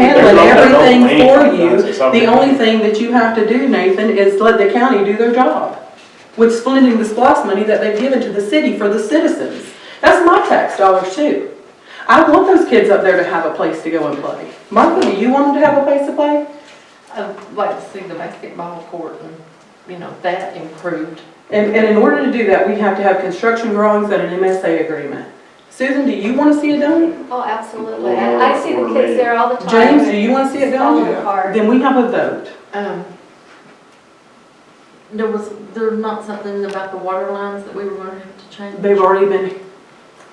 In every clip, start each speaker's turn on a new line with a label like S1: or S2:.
S1: I
S2: done
S1: don't- I don't
S2: everything
S1: mean
S2: for
S1: it does.
S2: you.
S1: It's something
S2: The only
S1: that-
S2: thing that you have to do, Nathan, is let the county do their job with splitting the SPOS money that they've given to the city for the citizens. That's my tax dollars too. I want those kids up there to have a place to go and play. Martha, do you want them to have a place to play?
S3: I'd like to see the basketball court and, you know, that improved.
S2: And, and in order to do that, we have to have construction drawings and an MSA agreement. Susan, do you want to see it done?
S4: Oh, absolutely. I I see the kids there all the time.
S2: James, do you want to see it done?
S4: Falling apart.
S2: Then we have a vote.
S3: Um, there was, there's not something about the water lines that we were gonna have to change?
S2: They've already been,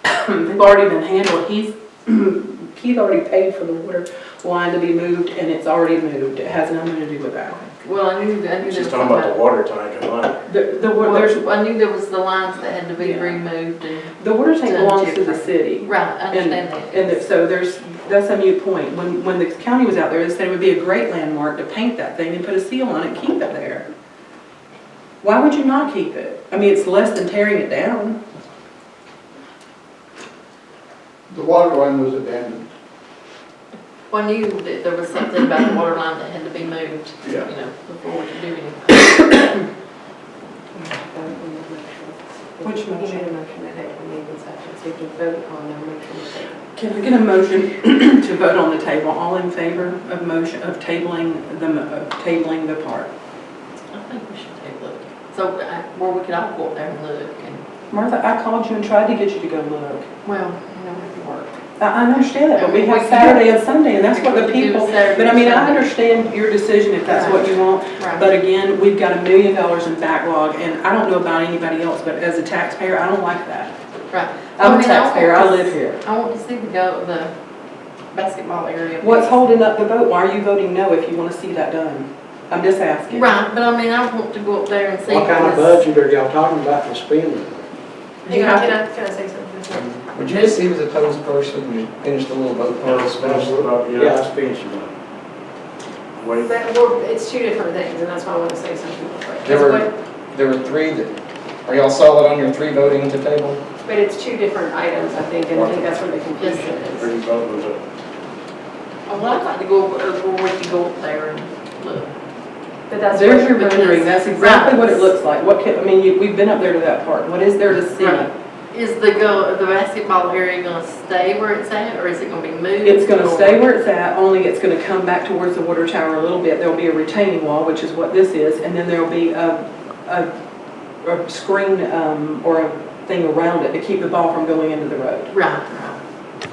S2: they've already been handled, he's, he's already paid for the water line to be moved, and it's already moved, it has nothing to do with that.
S3: Well, I knew, I knew there was
S1: She's
S3: something
S1: talking about the water tank and money.
S2: The, the, wa-
S3: Well,
S2: there's,
S3: I knew there was the lines that had to be
S2: Yeah.
S3: removed and,
S2: the water tank belongs to the city.
S3: right, I understand that.
S2: And that- so there's, that's a mute point. When, when the county was out there, they said it would be a great landmark to paint that thing and put a seal on it, and keep it there. Why would you not keep it? I mean, it's less than tearing it down.
S5: The water line was abandoned.
S3: Well, I knew that there was something about the water line that had to be moved, you
S5: Yeah.
S3: know, before we could do anything.
S2: Which motion?
S3: motion that they can leave in session, so you can vote on their motion.
S2: Can I get a motion to vote on the table? All in favor of motion, of tabling the, mo- of tabling the part?
S3: I think we should take a look. So, I- where we could all go up there and look and,
S2: Martha, I called you and tried to get you to go look.
S3: well, you know, it'd work.
S2: I, I understand that, but we have Saturday and Sunday, and that's what the people, but I mean, I understand your decision if that's what you want. But again, we've got a million dollars in backlog, and I don't know about anybody else, but as a taxpayer, I don't like that. I'm a taxpayer, I live here.
S3: I want to see the go, the basketball area.
S2: What's holding up the vote? Why are you voting no if you want to see that done? I'm just asking.
S3: Right, but I mean, I want to go up there and see.
S6: What kind of
S3: this-
S6: budget are y'all talking about for spending?
S2: You have to-
S4: I, can I say something?
S7: Would you see was a post person, you finished the little boat
S1: Yeah,
S7: part?
S1: it's special about,
S6: Yeah,
S1: yeah.
S6: I spent some money.
S1: Wait,
S4: But we're- it's two different things, and that's why I want to say something real quick.
S7: There were-
S4: But-
S7: There were three that, are y'all solid on your three voting to table?
S4: But it's two different items, I think, and I think that's where the confusion is.
S1: pretty vote was up.
S3: Oh, Well, I'd like to go, up- uh, where we can go up there and look.
S4: But that's.
S2: There's
S4: where-
S2: your rendering, that's exactly what it looks like. What can, I mean, you- we've been up there to that part. What is there to see?
S3: Right. Is the go, the basketball area gonna stay where it's at, or is it gonna be moved?
S2: It's gonna
S3: or-
S2: stay where it's at, only it's gonna come back towards the water tower a little bit. There'll be a retaining wall, which is what this is, and then there'll be a, a, a screen, um, or a thing around it to keep the ball from going into the road.
S3: Right, right.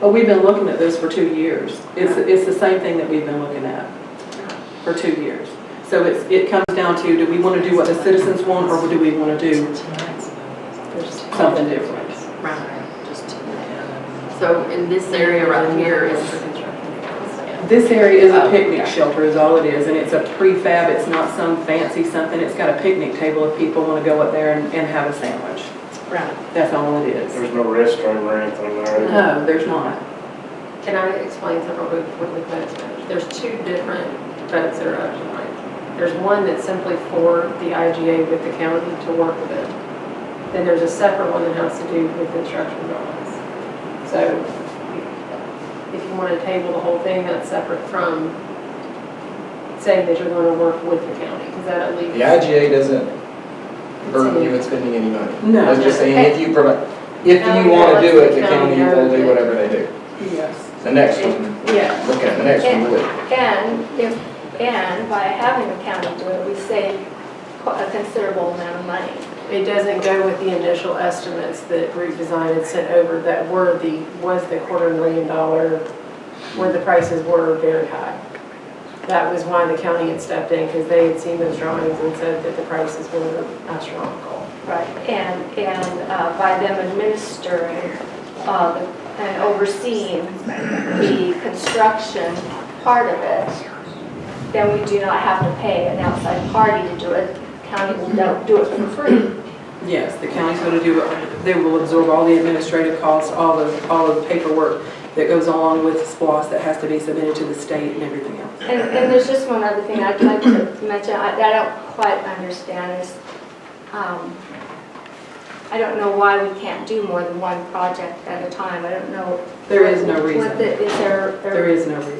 S2: But we've been looking at this for two years. It's, it's the same thing that we've been looking at for two years. So it's, it comes down to, do we wanna do what the citizens want, or do we wanna do something different?
S3: Right. So in this area right here is,
S2: This area is a picnic shelter is all it is, and it's a prefab, it's not some fancy something, it's got a picnic table if people wanna go up there and, and have a sandwich.
S3: right,
S2: That's all it is.
S1: There's no restroom or anything there.
S2: No, there's not.
S4: Can I explain something real quick before we vote? There's two different votes that are up tonight. There's one that's simply for the IGA with the county to work with it. Then there's a separate one that has to do with construction drawings. So if you want to table the whole thing, that's separate from saying that you're going to work with the county, because that at
S7: The
S4: least.
S7: IGA doesn't burden you with spending any money.
S2: No.
S7: I was just saying, if you provide, if you want to do it, the county will do whatever they do.
S2: Yes.
S7: The next one,
S4: Yeah.
S7: look at the next one, would.
S4: And if, and by having the county do it, we save quite a considerable amount of money.
S8: It doesn't go with the initial estimates that Root Design had sent over that were the, was the quarter million dollar, where the prices were very high. That was why the county had stepped in, because they had seen those drawings and said that the prices were astronomical.
S4: Right, and, and uh, by them administering uh, the- and overseeing the construction part of it, then we do not have to pay an outside party to do it. County will do- do it for free.
S2: Yes, the county's gonna do, it. they will absorb all the administrative costs, all the, all of the paperwork that goes along with SPOS that has to be submitted to the state and everything else.
S4: And, and there's just one other thing I'd like to mention, I, I don't quite understand is, um, I don't know why we can't do more than one project at a time. I don't know.
S2: There is no
S4: what
S2: reason.
S4: the- Is there?
S2: There is no reason.